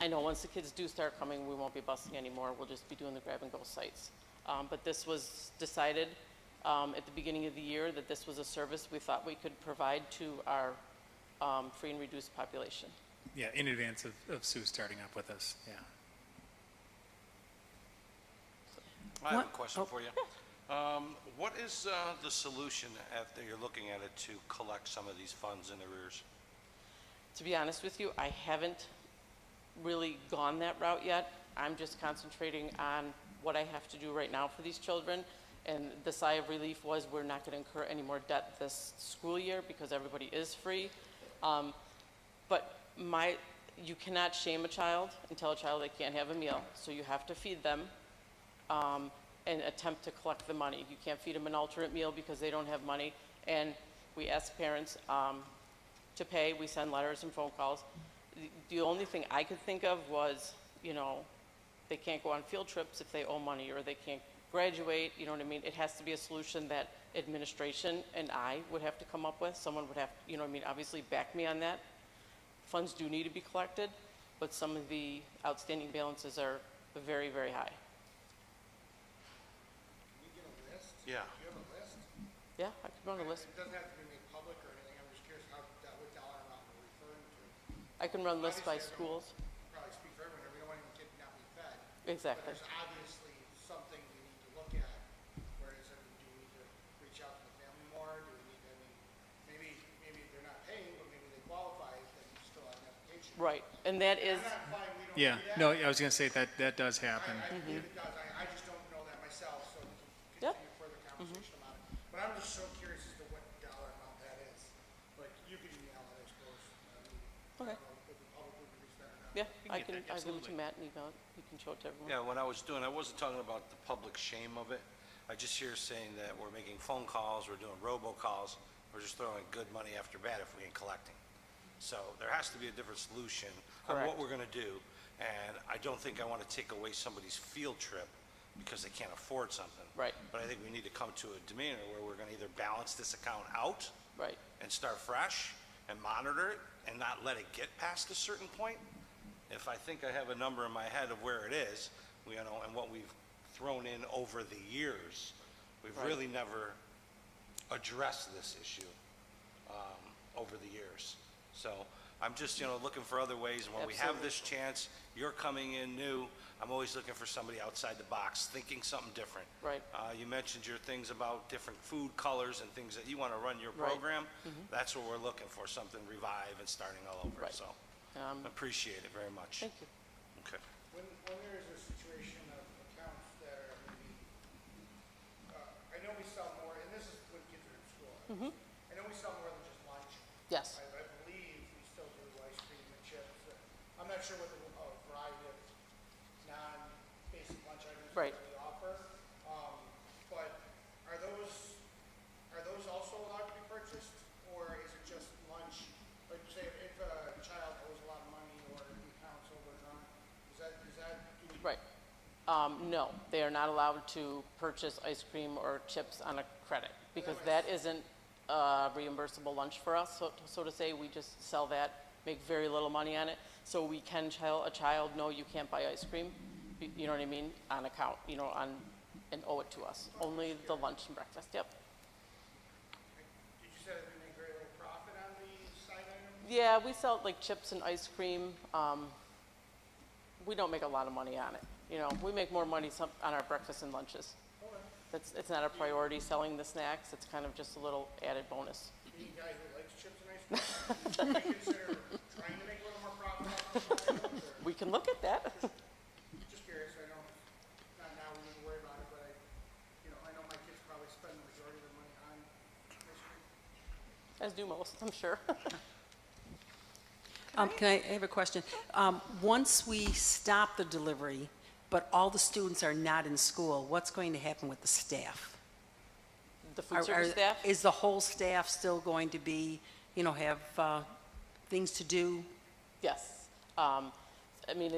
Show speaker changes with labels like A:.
A: I know, once the kids do start coming, we won't be busing anymore, we'll just be doing the grab-and-go sites. Um, But this was decided um, at the beginning of the year, that this was a service we thought we could provide to our um, free and reduced population.
B: Yeah, in advance of, of Sue starting up with us, yeah.
C: I have a
D: What-
C: question
D: oh.
C: for you. Um, What is uh, the solution after you're looking at it to collect some of these funds in arrears?
A: To be honest with you, I haven't really gone that route yet. I'm just concentrating on what I have to do right now for these children. And the sigh of relief was, we're not going to incur any more debt this school year because everybody is free. Um, But my, you cannot shame a child and tell a child they can't have a meal. So you have to feed them um, and attempt to collect the money. You can't feed them an alternate meal because they don't have money. And we ask parents um, to pay, we send letters and phone calls. The- The only thing I could think of was, you know, they can't go on field trips if they owe money, or they can't graduate, you know what I mean? It has to be a solution that administration and I would have to come up with. Someone would have, you know what I mean, obviously back me on that. Funds do need to be collected, but some of the outstanding balances are very, very high.
E: Can we get a list?
C: Yeah.
E: Do you have a list?
A: Yeah, I could run a list.
E: It doesn't have to be made public or anything, I'm just curious how, that what dollar amount we're referring to.
A: I can run lists by schools.
E: Probably speak for everyone, here, we don't want any kid not be fed. But
A: Exactly.
E: there's obviously something we need to look at, whereas, I mean, do we need to reach out to the family more, do we need, I mean, maybe, maybe they're not paying, but maybe they qualify, then you still have an application.
A: Right, and that is,
E: I'm not implying we don't do
B: Yeah,
E: that.
B: no, I was gonna say that, that does
E: I,
B: happen.
E: I believe it does, I, I just don't know that myself, so we can
A: Mm-hmm. Yep. Mm-hmm.
E: continue further conversation about it. But I'm just so curious as to what dollar amount that is, but you can email it, I suppose. I
A: Okay.
E: mean, I don't know If the public would reach that or not.
A: yeah,
B: can
A: I
B: get
A: can, I
B: that,
A: will to
B: absolutely.
A: Matt and email it. You can show it to everyone.
C: Yeah, when I was doing, I wasn't talking about the public shame of it. I just hear saying that we're making phone calls, we're doing robocalls, we're just throwing good money after bad if we ain't collecting. So there has to be a different solution on
A: Correct.
C: what we're gonna do. And I don't think I wanna take away somebody's field trip because they can't afford something.
A: Right.
C: But I think we need to come to a demeanor where we're gonna either balance this account out
A: Right,
C: and start fresh and monitor it and not let it get past a certain point. If I think I have a number in my head of where it is, you know, and what we've thrown in over the years, we've
A: Right.
C: really never addressed this issue um, over the years. So I'm just, you know, looking for other ways. And when we have this chance, you're coming in new. I'm always looking for somebody outside the box, thinking something different.
A: Right.
C: Uh, You mentioned your things about different food colors and things that you want to run your
A: Right.
C: program. That's what we're looking for, something revive and starting all over.
A: Mm-hmm. Right.
C: So
A: um,
C: appreciate it very much.
A: thank you.
C: Okay.
E: When, when there is a situation of accounts that are maybe, uh, I know we sell more, and this is when kids are in school. obviously.
A: Mm-hmm.
E: I know we sell more than just lunch.
A: Yes.
E: I, I believe we still do ice cream and chips. uh, I'm not sure what the, a variety of non-basic lunch items
A: Right.
E: that we offer. Um, but are those, are those also allowed to be purchased? Or is it just lunch? Like say, if a child owes a lot of money or the account's overdrawn, is that, is that, do we?
A: Right. Um, no, they are not allowed to purchase ice cream or chips on a credit because that isn't a reimbursable lunch for us, so, so to say. We just sell that, make very little money on it. So we can tell a child, no, you can't buy ice cream, y- you know what I mean, on account, you know, on, and owe it to us. Only the lunch and breakfast, yep.
E: Did you say that we make very little profit on the side items?
A: Yeah, we sell like chips and ice cream. Um, we don't make a lot of money on it. You know, we make more money some, on our breakfast and lunches. That's, it's not a priority selling the snacks. It's kind of just a little added bonus.
E: Being a guy who likes chips and ice cream, do you consider trying to make a little more profit on the side items? or-
A: We can look at that.
E: Just curious, I don't, not now, we didn't worry about it, but I, you know, I know my kids probably spend the majority of their money on ice cream.
A: As do most, I'm sure.
D: Um, Can I, I have a question. Um, Once we stop the delivery, but all the students are not in school, what's going to happen with the staff?
A: The
D: Are-
A: food
D: are-
A: service staff,
D: Is the whole staff still going to be, you know, have uh, things to do?
A: yes. Um, I mean,